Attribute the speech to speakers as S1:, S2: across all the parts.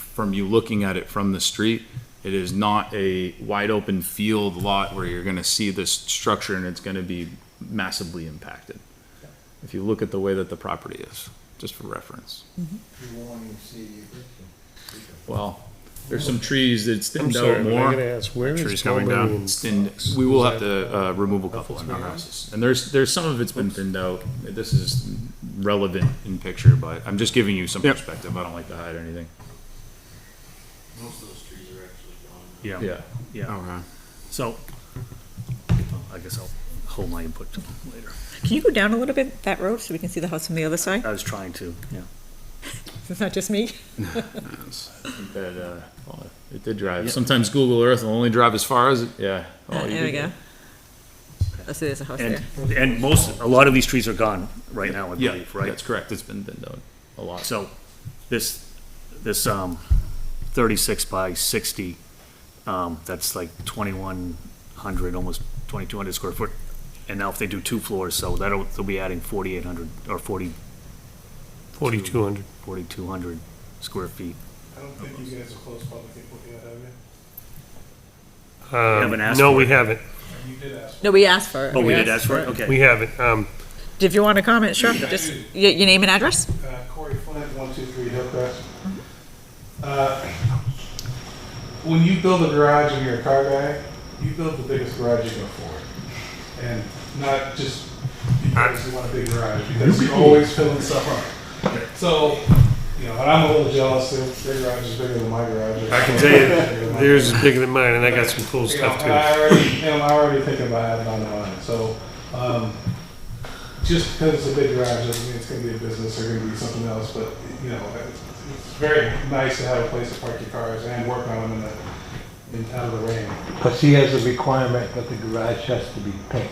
S1: from you looking at it from the street. It is not a wide open field lot where you're gonna see this structure and it's gonna be massively impacted. If you look at the way that the property is, just for reference.
S2: You won't even see the existing.
S1: Well, there's some trees that's
S3: I'm
S1: thinned
S3: sorry,
S1: out
S3: but I
S1: more.
S3: gotta ask, where
S4: Trees
S3: is
S4: coming down.
S3: Mulberry?
S1: It's thinned, we will have to, uh, remove a couple in our houses. And there's, there's some of it's been thinned out. This is relevant in picture, but I'm just giving you some
S4: Yep.
S1: perspective. I don't like to hide anything.
S5: Most of those trees are actually gone.
S3: Yeah,
S1: Yeah.
S3: yeah,
S4: Okay.
S3: so, well, I guess I'll hold my input till later.
S6: Can you go down a little bit that road so we can see the house from the other side?
S3: I was trying to, yeah.
S6: It's not just me.
S1: That, uh, well, it did drive.
S3: Yeah.
S1: Sometimes Google Earth will only drive as far as it. Yeah.
S6: Uh,
S1: Oh, you
S6: There we
S1: did
S6: go. I see there's a house
S3: And,
S6: there.
S3: and most, a lot of these trees are gone right
S1: good.
S3: now, I
S1: Yeah,
S3: believe, right?
S1: That's correct. It's been thinned out a lot.
S3: So this, this, um, thirty-six by sixty, um, that's like twenty-one hundred, almost twenty-two hundred square foot. And now if they do two floors, so that'll, they'll be adding forty-eight hundred, or forty,
S4: Forty-two hundred.
S3: forty-two hundred square feet.
S7: I don't think you guys are close public input yet, have you?
S3: haven't asked
S4: Um, No,
S3: for
S4: we
S3: it.
S4: haven't.
S7: You did ask.
S6: No, we asked for it.
S3: Oh, we did ask for it, okay.
S4: We haven't. Um,
S6: If you want to comment, sure,
S7: Yeah.
S6: just, your, your name and address?
S7: Uh, Corey Flint, one two three Hillcrest. Uh, When you build a garage and you're a car guy, you build the biggest garage you can afford. And not just because you want a big garage, because you're always filling stuff up. So, you know, and I'm a little jealous, that their garage is bigger than my garage.
S4: I can tell you, theirs is bigger than mine, and I got some cool
S7: You know,
S4: stuff
S7: and I
S4: too.
S7: already, am already thinking about having on the line, so, um, just because it's a big garage doesn't mean it's gonna be a business or gonna be something else, but, you know, it's, it's very nice to have a place to park your cars and work on them in the, in, out of the rain.
S2: Plus, he has a requirement that the garage has to be pink.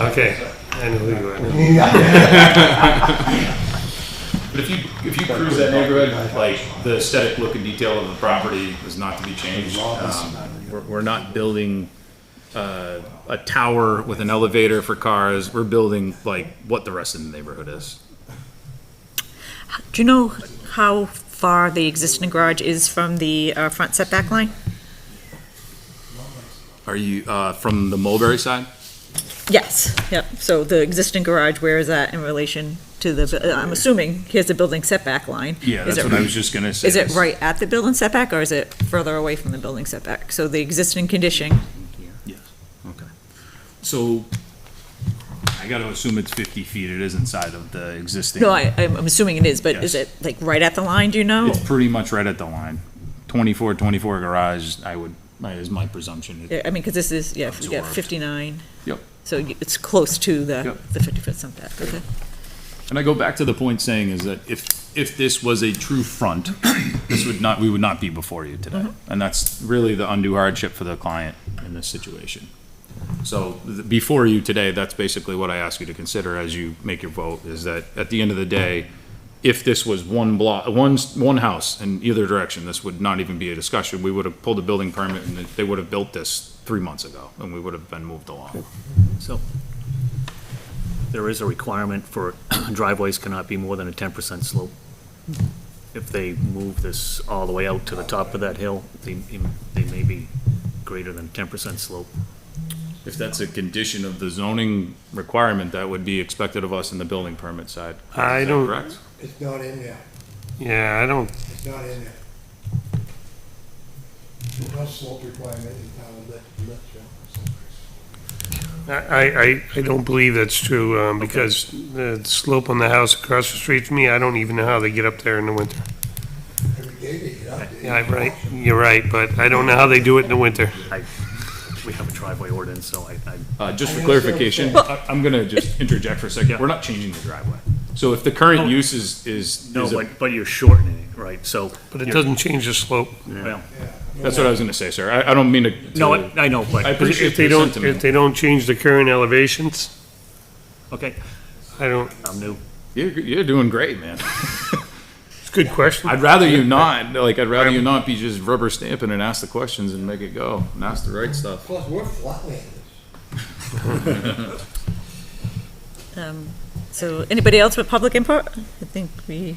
S4: Okay, I know who you are now.
S1: But if you, if you cruise that neighborhood, like, the aesthetic look and detail of the property is not to be changed. Um, We're, we're not building, uh, a tower with an elevator for cars. We're building, like, what the rest of the neighborhood is.
S6: Do you know how far the existing garage is from the, uh, front setback line?
S1: Are you, uh, from the Mulberry side?
S6: Yes, yep, so the existing garage, where is that in relation to the, uh, I'm assuming, here's the building setback line. Is it-
S1: just gonna say.
S6: Is it right at the building setback, or is it further away from the building setback? So the existing condition,
S1: Yes, okay. So, I gotta assume it's fifty feet, it is inside of the existing.
S6: no, I, I'm I'm assuming it is, but is
S1: Yes.
S6: it like right at the line, do you know?
S1: It's pretty much right at the line. Twenty-four, twenty-four garage, I would, is my presumption.
S6: Yeah, I mean, because this is, yeah, yeah,
S1: Absorbed.
S6: 59.
S1: Yep.
S6: So y- it's close to the,
S1: Yep.
S6: the 50-foot setback, okay.
S1: And I go back to the point saying is that if, if this was a true front, this would not, we would not be before you today. And that's really the undue hardship for the client in this situation. So th- before you today, that's basically what I ask you to consider as you make your vote, is that at the end of the day, if this was one block, one, s- one house in either direction, this would not even be a discussion. We would have pulled a building permit and they would have built this three months ago and we would have been moved along.
S3: So there is a requirement for driveways cannot be more than a ten percent slope. If they move this all the way out to the top of that hill, they, they may be greater than ten percent slope.
S1: If that's a condition of the zoning requirement, that would be expected of us in the building permit side.
S4: I
S1: Is that
S4: don't-
S1: Correct?
S2: It's not in there,
S4: Yeah, I don't,
S2: it's not in there. There's no slope requirement in town, let, let
S4: I, I, I don't believe that's true, um, because the slope on the house across the street from me, I don't even know how they get up there in the winter.
S2: Every day they get up there.
S4: Yeah, I'm right, you're right, but I don't know how they do it in the winter.
S3: I, we have a driveway ordinance, so I, I,
S1: Uh, just for
S2: I understand
S1: clarification,
S2: what
S1: I- I'm gonna just interject for a second. We're not changing the driveway. So if the
S3: Oh.
S1: current use is, is,
S3: no,
S1: is a-
S3: but, but you're shortening it, right, so.
S4: But it doesn't change the slope.
S3: Well,
S1: that's what I was gonna say, sir. I, I don't mean to.
S3: no,
S1: to-
S3: I I know,
S1: I
S3: but,
S1: appreciate
S4: If they
S1: your
S4: don't,
S1: sentiment.
S4: if they don't change the current elevations,
S3: okay,
S4: I don't,
S3: I'm new.
S1: You're, you're doing great, man.
S4: it's a good question.
S1: I'd rather you not, like, I'd rather you not be just rubber stamping and ask the questions and make it go and ask the right stuff.
S2: Plus, we're flatlanders.
S6: Um, So anybody else with public input? I think we